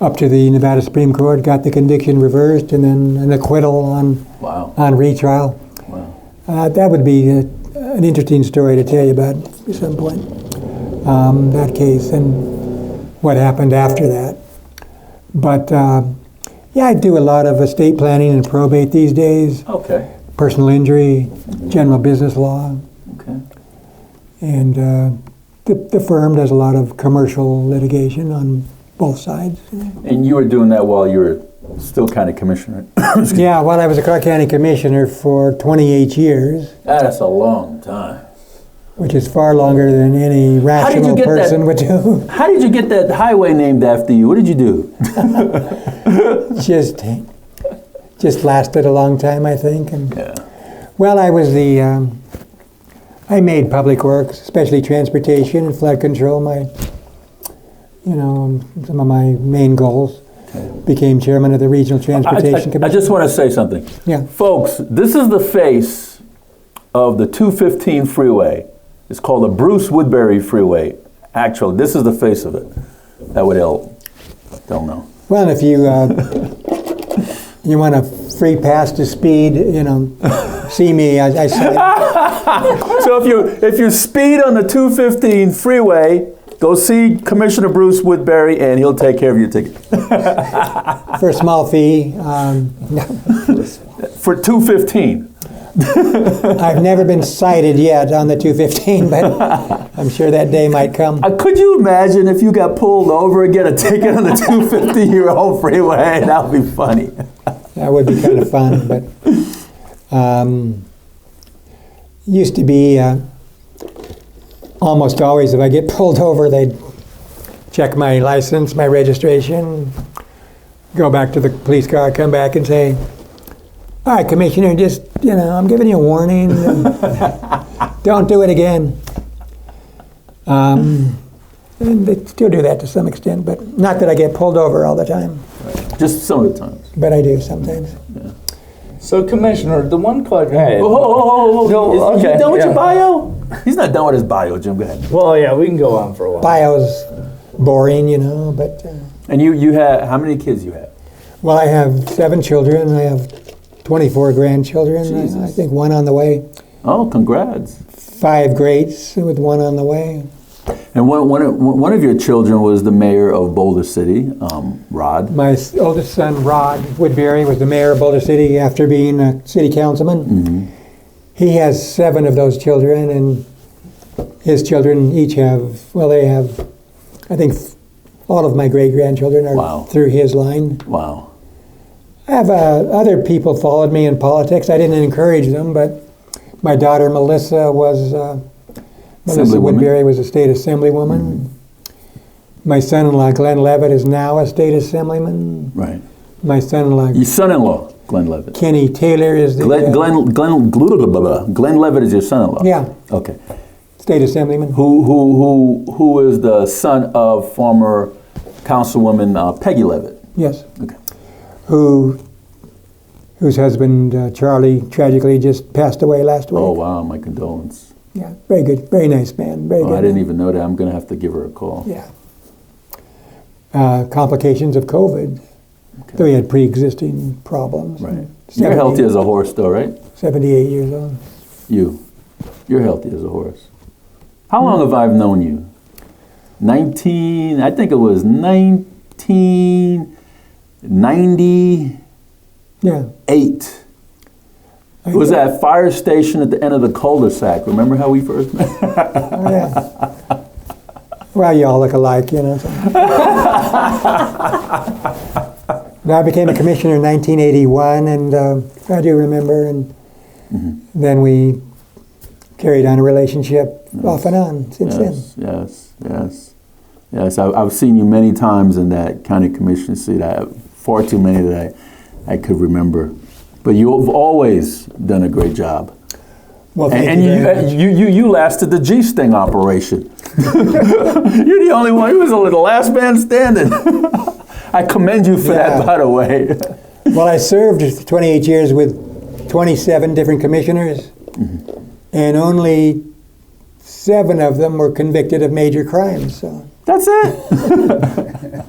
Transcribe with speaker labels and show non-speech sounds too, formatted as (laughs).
Speaker 1: up to the Nevada Supreme Court, got the conviction reversed, and then an acquittal on,
Speaker 2: Wow.
Speaker 1: on retrial.
Speaker 2: Wow.
Speaker 1: Uh, that would be uh an interesting story to tell you about at some point, um, that case and what happened after that. But uh, yeah, I do a lot of estate planning and probate these days,
Speaker 2: Okay.
Speaker 1: personal injury, general business law,
Speaker 2: Okay.
Speaker 1: and uh, the, the firm does a lot of commercial litigation on both sides.
Speaker 2: And you were doing that while you were still kind of commissioner. ah,
Speaker 1: Yeah, well, I was a Clark County Commissioner for 28 years,
Speaker 2: that's a long time.
Speaker 1: which is far longer than any
Speaker 2: did you
Speaker 1: rational
Speaker 2: get that-
Speaker 1: person would do. (laughs)
Speaker 2: How did you get that highway named after you? What did you do?
Speaker 1: just, just lasted a long time, I think. And
Speaker 2: Yeah.
Speaker 1: well, I was the, um, I made public works, especially transportation and flood control. My, you know, um, some of my main goals. Became chairman of the regional
Speaker 2: I, I-
Speaker 1: transportation
Speaker 2: I
Speaker 1: committee.
Speaker 2: just want to say something.
Speaker 1: Yeah.
Speaker 2: Folks, this is the face of the 215 freeway. It's called the Bruce Woodbury Freeway. Actually, this is the face of it. That would help. Don't know.
Speaker 1: Well, if you
Speaker 2: (laughs)
Speaker 1: uh, you want a free pass to speed, you know, see me. I, I say,
Speaker 2: So if you if you speed on the 215 freeway, go see Commissioner Bruce Woodbury and he'll take care of your ticket
Speaker 1: for a small fee. Um,
Speaker 2: for 215.
Speaker 1: I've never been cited yet on the 215, but I'm sure that day might come.
Speaker 2: Uh, could you imagine if you got pulled over and get a ticket on the 250 year old freeway? (laughs) That would be funny.
Speaker 1: That would be kind of fun, but um, used to be uh, almost always if I get pulled over, they'd check my license, my registration, go back to the police car, come back and say, "All right, Commissioner, just you know, I'm giving you a warning. Don't do it again." Um, and they still do that to some extent, but not that I get pulled over all the time,
Speaker 2: Just some of the time.
Speaker 1: but I do sometimes.
Speaker 3: So, Commissioner, the one question. Hey.
Speaker 2: Oh, oh, oh, oh.
Speaker 3: No,
Speaker 2: Is- is he
Speaker 3: okay,
Speaker 2: done with your
Speaker 3: yeah.
Speaker 2: bio? He's not done with his bio, Jim. Go ahead.
Speaker 3: Well, yeah, we can go on for a while.
Speaker 1: bio's boring, you know, but, uh,
Speaker 2: And you, you have how many kids you have?
Speaker 1: well, I have seven children. I have 24 grandchildren. I- I,
Speaker 2: Jesus.
Speaker 1: think one on the way,
Speaker 2: Oh, congrats!
Speaker 1: five greats with one on the way.
Speaker 2: And one, one, of, one of your children was the mayor of Boulder City, um, Rod.
Speaker 1: My s- oldest son, Rod Woodbury, was the mayor of Boulder City after being a city councilman.
Speaker 2: Mm-hmm.
Speaker 1: He has seven of those children, and his children each have, well, they have, I think, f- all of my great grandchildren are
Speaker 2: Wow.
Speaker 1: through his line.
Speaker 2: Wow.
Speaker 1: I have uh, other people followed me in politics. I didn't encourage them, but my daughter Melissa was uh, Melissa
Speaker 2: Assemblywoman. Mm-hmm.
Speaker 1: Woodbury was a state assemblywoman. My son-in-law Glenn Levitt is now a state assemblyman.
Speaker 2: Right.
Speaker 1: My son-in-law
Speaker 2: Your son-in-law, Glenn Levitt.
Speaker 1: Kenny Taylor is the
Speaker 2: Glenn,
Speaker 1: uh,
Speaker 2: Glenn, Glenn, blah, blah, blah, blah. Glenn Levitt is your son-in-law.
Speaker 1: Yeah.
Speaker 2: Okay.
Speaker 1: state assemblyman.
Speaker 2: Who, who, who, who is the son of former Councilwoman uh, Peggy Levitt?
Speaker 1: Yes,
Speaker 2: Okay.
Speaker 1: who whose husband uh, Charlie tragically just passed away last week.
Speaker 2: Oh wow, my condolence.
Speaker 1: Yeah, very good, very nice man, very
Speaker 2: Oh,
Speaker 1: good.
Speaker 2: I didn't even know that. I'm gonna have to give her a call.
Speaker 1: Yeah. Uh, complications of COVID. Though he had pre-existing problems.
Speaker 2: Right. You're
Speaker 1: 70
Speaker 2: healthy as a horse, though, right?
Speaker 1: Seventy-eight years old.
Speaker 2: You. You're healthy as a horse. How long have I known you? 19, I think it was 1998.
Speaker 1: Yeah.
Speaker 2: It was that fire station at the end of the cul-de-sac. Remember how we first met?
Speaker 1: Oh, yeah. well, you all look alike, you know.
Speaker 2: (laughs)
Speaker 1: so. now I became a commissioner in 1981, and uh, I do remember. And
Speaker 2: Mm-hmm.
Speaker 1: then we carried on a relationship off and on since then.
Speaker 2: Yes, yes, yes. Yes, I, I've seen you many times in that county commission seat. I have far too many that I, I could remember. But you've always done a great job.
Speaker 1: Well, thank
Speaker 2: And, and
Speaker 1: you.
Speaker 2: you,
Speaker 1: very much.
Speaker 2: uh, you, you, you lasted the G Sting operation. (laughs) You're the only one. You was the last man standing. (laughs) I commend you for
Speaker 1: Yeah.
Speaker 2: that, by the way.
Speaker 1: Well, I served for 28 years with 27 different commissioners, and only seven of them were convicted of major crimes. So
Speaker 2: That's it.